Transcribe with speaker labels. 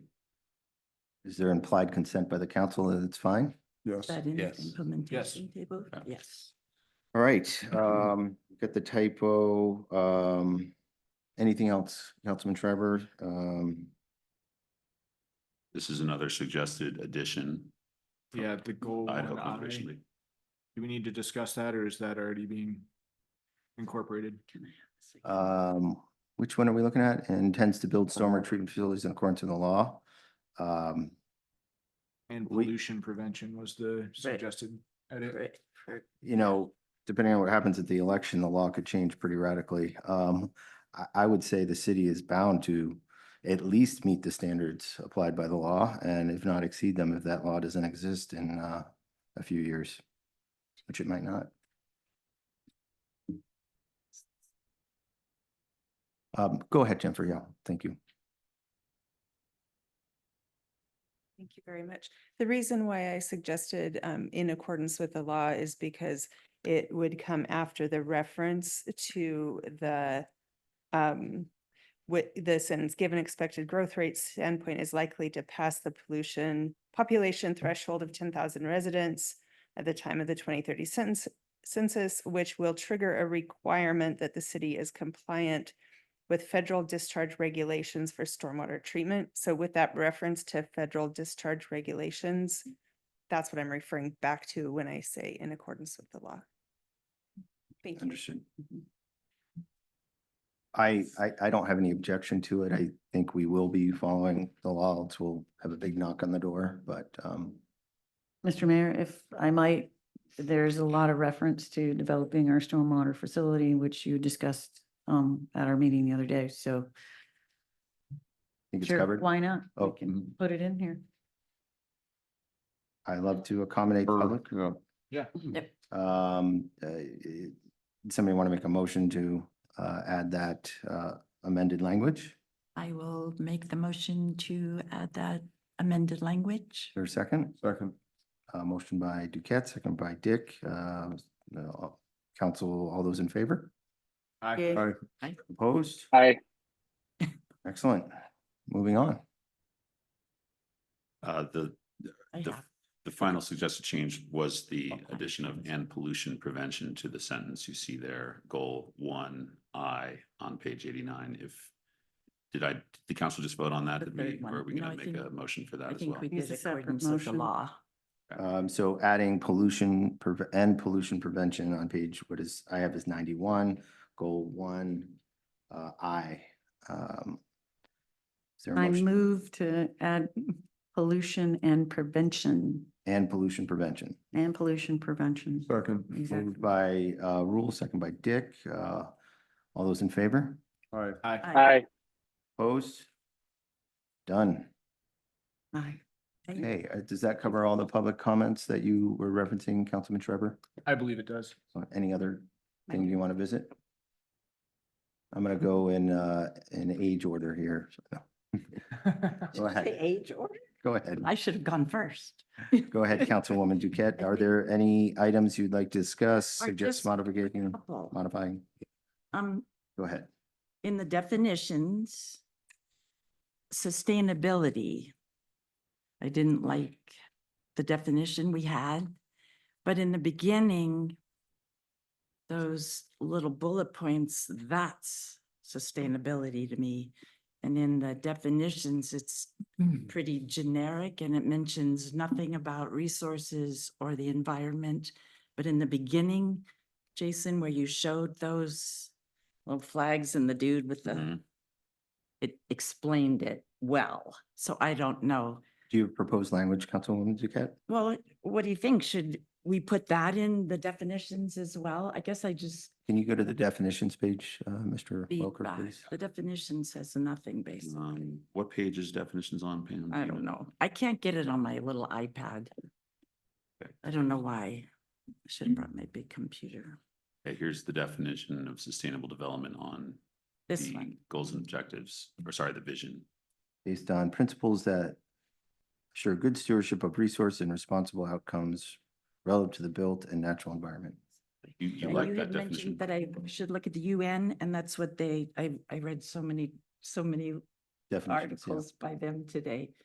Speaker 1: Is there implied consent by the council that it's fine?
Speaker 2: Yes.
Speaker 3: That in
Speaker 4: Yes.
Speaker 3: the implementation table,
Speaker 4: Yeah.
Speaker 3: yes.
Speaker 1: All right, um, we've got the typo, um, anything else, Councilman Trevor? Um,
Speaker 4: This is another suggested addition. from
Speaker 5: Yeah, the goal one
Speaker 4: Idaho
Speaker 5: I,
Speaker 4: Conservation
Speaker 5: do
Speaker 4: League.
Speaker 5: we need to discuss that or is that already being incorporated?
Speaker 1: um, which one are we looking at? Intends to build stormwater treatment facilities in accordance to the law. Um,
Speaker 5: And
Speaker 1: We-
Speaker 5: pollution prevention was the suggested edit.
Speaker 3: Right, for-
Speaker 1: you know, depending on what happens at the election, the law could change pretty radically. Um, I, I would say the city is bound to at least meet the standards applied by the law and if not exceed them, if that law doesn't exist in, uh, a few years, which it might not. Um, go ahead, Jennifer. Yeah, thank you.
Speaker 6: Thank you very much. The reason why I suggested um, in accordance with the law is because it would come after the reference to the um, what the sentence, given expected growth rate standpoint is likely to pass the pollution population threshold of ten thousand residents at the time of the twenty thirty census, census, which will trigger a requirement that the city is compliant with federal discharge regulations for stormwater treatment. So with that reference to federal discharge regulations, that's what I'm referring back to when I say in accordance with the law. Thank you.
Speaker 1: Understood. I, I, I don't have any objection to it. I think we will be following the law. else We'll have a big knock on the door, but, um,
Speaker 7: Mr. Mayor, if I might, there's a lot of reference to developing our stormwater facility, which you discussed um at our meeting the other day, so.
Speaker 1: I think it's
Speaker 7: sure,
Speaker 1: covered.
Speaker 7: Why not? We
Speaker 1: Oh.
Speaker 3: Um,
Speaker 7: can Put it in here.
Speaker 1: I love to accommodate public.
Speaker 5: Yeah.
Speaker 1: Um, uh, i- somebody want to make a motion to, uh, add that, uh, amended language?
Speaker 3: I will make the motion to add that amended language.
Speaker 1: Or second?
Speaker 2: Second.
Speaker 1: Uh, motion by Duquette, second by Dick. Uh, no, council, all those in favor?
Speaker 5: I,
Speaker 2: Aye.
Speaker 1: Opposed?
Speaker 8: Aye.
Speaker 1: Excellent. Moving on.
Speaker 4: Uh, the,
Speaker 7: I
Speaker 4: the,
Speaker 7: have.
Speaker 4: the final suggested change was the addition of and pollution prevention to the sentence you see there, goal one I on page eighty-nine, if did I, did the council just vote on that?
Speaker 3: The
Speaker 4: Did we,
Speaker 3: third one.
Speaker 4: or are we
Speaker 3: No,
Speaker 4: gonna
Speaker 3: I
Speaker 4: make a
Speaker 3: think-
Speaker 4: motion for that
Speaker 3: I
Speaker 4: as
Speaker 3: think
Speaker 4: well?
Speaker 3: we
Speaker 7: It's
Speaker 3: did
Speaker 7: a separate
Speaker 3: accordance with the
Speaker 7: motion.
Speaker 3: law.
Speaker 1: Um, so adding pollution preve- and pollution prevention on page, what is, I have is ninety-one, goal one, uh, I. um, Is there a
Speaker 7: I
Speaker 1: motion?
Speaker 7: move to add pollution and prevention
Speaker 1: And pollution prevention.
Speaker 7: and pollution prevention.
Speaker 2: Second.
Speaker 7: Exactly.
Speaker 1: Moved by, uh, Rule, second by Dick. Uh, all those in favor?
Speaker 2: Aye.
Speaker 5: I,
Speaker 8: Aye.
Speaker 1: Opposed? Done.
Speaker 7: Aye.
Speaker 1: Okay, uh, does that cover all the public comments that you were referencing, Councilman Trevor?
Speaker 5: I believe it does.
Speaker 1: So Any other thing you want to visit? I'm gonna go in, uh, in age order here. so- Go
Speaker 3: Say
Speaker 1: ahead,
Speaker 3: Age order?
Speaker 1: go ahead.
Speaker 3: I should have gone first.
Speaker 1: Go ahead, Councilwoman Duquette. Are there any items you'd like to discuss,
Speaker 3: Or
Speaker 1: suggest
Speaker 3: just a
Speaker 1: modification,
Speaker 3: couple.
Speaker 1: modifying?
Speaker 3: Um,
Speaker 1: Go ahead.
Speaker 3: in the definitions, sustainability. I didn't like the definition we had, but in the beginning, those little bullet points, that's sustainability to me. And in the definitions, it's pretty generic and it mentions nothing about resources or the environment. But in the beginning, Jason, where you showed those little flags and the dude with the,
Speaker 4: Mhm.
Speaker 3: it explained it well. So I don't know.
Speaker 1: Do you propose language, Councilwoman Duquette?
Speaker 3: Well, what do you think? Should we put that in the definitions as well? I guess I just
Speaker 1: Can you go to the definitions page, uh, Mr. Welker,
Speaker 3: feedback.
Speaker 1: please?
Speaker 3: The definition says nothing basically.
Speaker 4: Um, what page is definitions on, Pam? Do
Speaker 3: I
Speaker 4: you
Speaker 3: don't know. I can't get it on my little iPad.
Speaker 4: Okay.
Speaker 3: I don't know why. I Should have brought my big computer.
Speaker 4: Okay, here's the definition of sustainable development on
Speaker 3: This
Speaker 4: the
Speaker 3: one.
Speaker 4: Goals and objectives, or sorry, the vision.
Speaker 1: based on principles that assure good stewardship of resource and responsible outcomes relative to the built and natural environment.
Speaker 4: You, you
Speaker 3: And
Speaker 4: like
Speaker 3: you
Speaker 4: that
Speaker 3: had
Speaker 4: definition?
Speaker 3: mentioned that I should look at the UN and that's what they, I, I read so many, so many
Speaker 1: Definitions, yeah.
Speaker 3: articles by them today.